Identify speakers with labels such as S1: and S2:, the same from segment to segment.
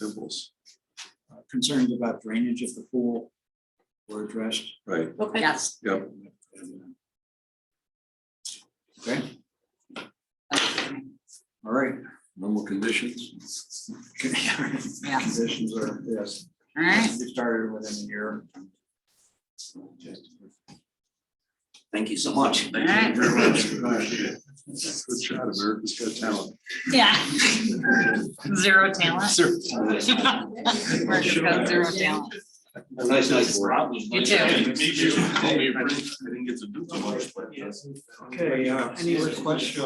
S1: Symbols,
S2: Uh, Concerns about drainage of the pool were addressed. uh,
S1: right,
S3: Okay.
S4: Yes,
S1: yep,
S2: Okay,
S4: okay,
S2: all right.
S1: normal conditions.
S2: Conditions are, yes,
S4: all right,
S2: we started within a year.
S3: Thank you so much.
S4: all right.
S1: Good shot, America's Got Talent.
S4: Yeah. Zero talent.
S1: Sir.
S4: America's got zero talent.
S3: Nice, nice work.
S4: You too.
S2: Okay, uh, any requests?
S4: I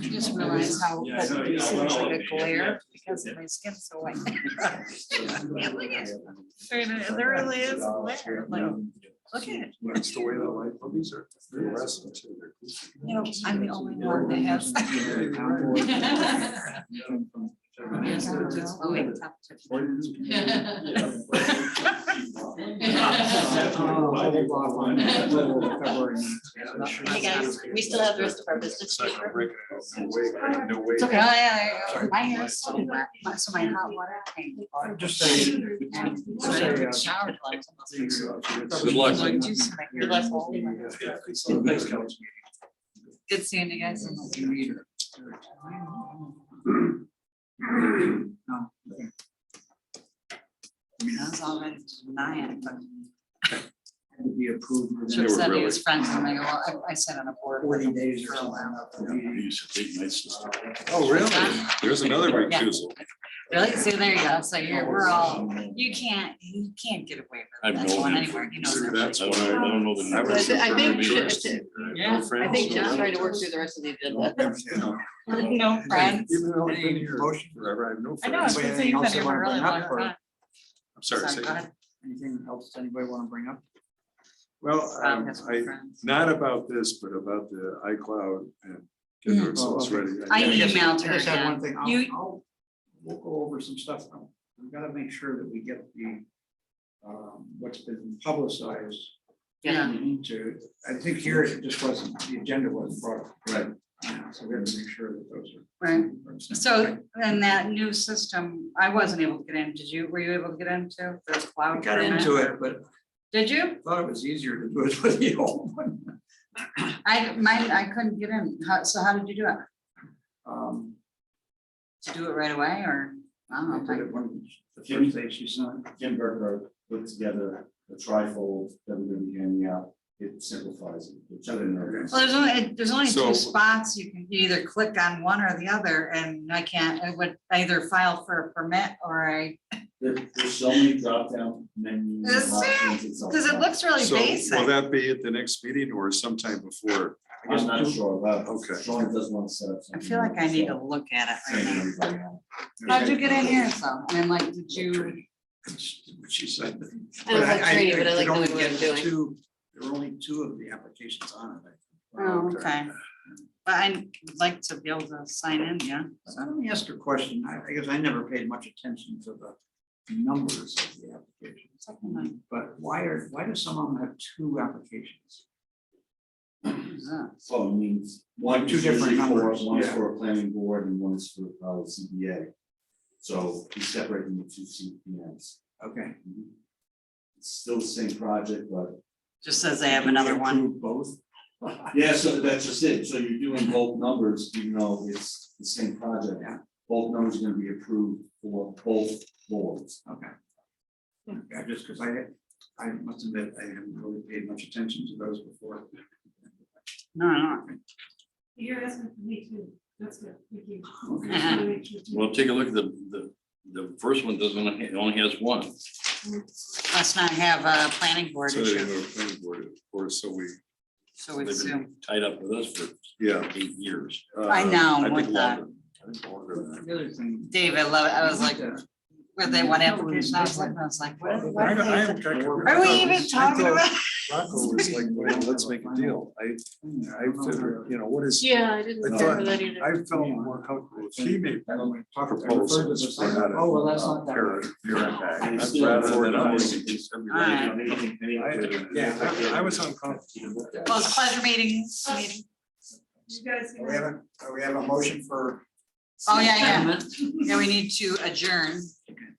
S4: Just realized how, that this looks like a glare because my skin's so white. Yeah, look at it. There really
S2: uh,
S4: is a glare, like, look at it.
S1: That's the way the light movies are. They're arresting too. They're cool.
S4: You know, I'm the only one that has. Oh, wait, it's up to-
S5: Hey,
S2: Uh,
S5: guys, we still have the rest of our business.
S1: It's not gonna break it. No way, no way.
S4: It's okay. Oh, yeah, yeah, yeah.
S1: Sorry.
S4: My hair's so wet, my- so my hot water tank.
S2: Just say.
S4: So I took a shower to like almost like-
S1: Good luck.
S4: Like, juice in my hair.
S5: Good luck.
S4: Good seeing you guys. I was already denying, but
S2: Be approved. within
S4: should have
S1: were
S4: said he
S1: really-
S4: was friends, and I go, well, I I sat on a board. with
S2: Forty
S4: him
S2: days or
S4: for a while.
S2: something.
S1: Oh, really? There's another recusal.
S4: Really? So there you go, so you're, we're all, you can't, you can't get away
S6: I've
S4: with that
S6: known
S4: one
S6: him
S4: anywhere, you know.
S1: So
S4: that.
S1: that's
S6: I
S1: why.
S6: don't know, I don't know the
S1: I was-
S5: I think-
S4: Yeah,
S5: I think John's trying to work through the rest of the agenda.
S1: You know,
S4: No friends.
S1: Even though I've been here forever, I have no
S4: I know, I was
S1: friends.
S4: gonna say you've been here for a really long time.
S1: I'm sorry,
S4: Sorry,
S1: say
S4: go ahead.
S1: that.
S2: Anything else anybody want to bring up?
S1: Well,
S4: Rob
S1: um,
S4: has
S1: I,
S4: some friends.
S1: not about this, but about the iCloud and getting the
S4: Mm.
S1: results
S2: Oh, okay.
S1: ready.
S4: I
S2: Yeah, just-
S4: emailed her
S2: I just had one
S4: again.
S2: thing. I'll-
S4: You-
S2: I'll- We'll go over some stuff. now. We've got to make sure that we get the, um, what's been publicized.
S4: Yeah.
S2: We need to, I think here it just wasn't, the agenda wasn't brought up.
S1: Right.
S2: Yeah, So we have to make sure that those are.
S4: Right. So then that new system, I wasn't able to get in. Did you, were you able to get into the
S2: I
S4: cloud?
S2: got
S4: permit?
S2: into it, but
S4: Did you?
S2: thought it was easier to do it with the old one.
S4: I, mine, I couldn't get in. How, so how did you do it?
S2: Um,
S4: Did you do it right away or? I
S2: I
S4: don't
S2: did
S4: know.
S2: it one, the first day she signed.
S7: Jim Berger put together the trifold that we're gonna be handing out. It simplifies it. It's other than that.
S4: Well, there's only, there's only
S1: So-
S4: two spots. You can either click on one or the other and I can't, I would I either file for a permit or I,
S7: There, there's so many drop down menus.
S4: Is
S7: and
S4: there?
S7: options, it's all-
S4: because it looks really
S1: So will
S4: basic.
S1: that be at the next meeting or sometime before?
S7: I'm not sure, but.
S1: Okay.
S7: Sean does want to set up.
S4: I feel like I need to look at it right
S7: Thank
S4: now.
S7: you, everybody.
S4: How'd you get in here? So, and like, did you,
S2: That's what she said.
S5: I don't like training, but I like knowing what I'm doing.
S2: There were only two of the applications on it.
S4: oh, okay. But I'd like to be able to sign in, yeah.
S2: So let me ask you a question, I, I guess I never paid much attention to the numbers of the applications,
S4: Something like
S2: but why are, why do some of them have two applications?
S4: that.
S7: So it means one,
S2: Two
S7: two
S2: different
S7: different
S2: numbers,
S7: numbers, one's
S2: yeah.
S7: for a planning board and one's for uh CBA. So we separate them into two CPNs.
S2: Okay.
S7: It's still the same project, but
S4: Just says they have another one.
S2: Approve Both?
S7: Yeah, so that's just it, so you're doing both numbers, even though it's the same project.
S2: Yeah.
S7: Both numbers are gonna be approved for both boards.
S2: Okay. Yeah, just because I, I must admit, I haven't really paid much attention to those before.
S4: No, no.
S8: You're asking for me too, that's good, thank you.
S4: Uh-huh.
S6: Well, take a look at the, the, the first one doesn't, it only has one.
S4: Let's not have a planning board
S1: So they
S4: issue.
S1: go to planning board, Or so we,
S4: So we
S6: They've
S4: assume.
S6: been tied up with us for
S1: yeah.
S6: eight years.
S1: uh,
S4: I know,
S1: I
S4: what
S1: think
S4: the-
S1: longer. I think longer than that.
S2: The other thing.
S4: David, love it. I was like,
S2: Yeah.
S4: with that one application, I was like, I was like, what? what
S1: I-
S4: are
S1: I- I
S4: they-
S1: thought-
S4: Are we even talking about?
S1: Rocco was like, well, let's make a deal. I,
S4: "Hmm,
S1: I figured, you know, what is,
S5: Yeah, I didn't
S1: I thought-
S5: remember that either.
S1: I felt more comfortable. if He made
S2: I don't talk about.
S1: proposals. for how to,
S2: Oh, well, that's not
S1: uh,
S2: that.
S1: pair- pair it back.
S7: And it's
S1: That's
S7: still-
S1: rather than
S6: I
S1: us.
S6: think it's every-
S4: Alright.
S1: I- Yeah, I I was uncomfortable.
S4: Well, it's pleasure meetings. meeting.
S8: You guys.
S2: We have, a- we have a motion for
S4: Oh, yeah, yeah. Yeah, we need to adjourn.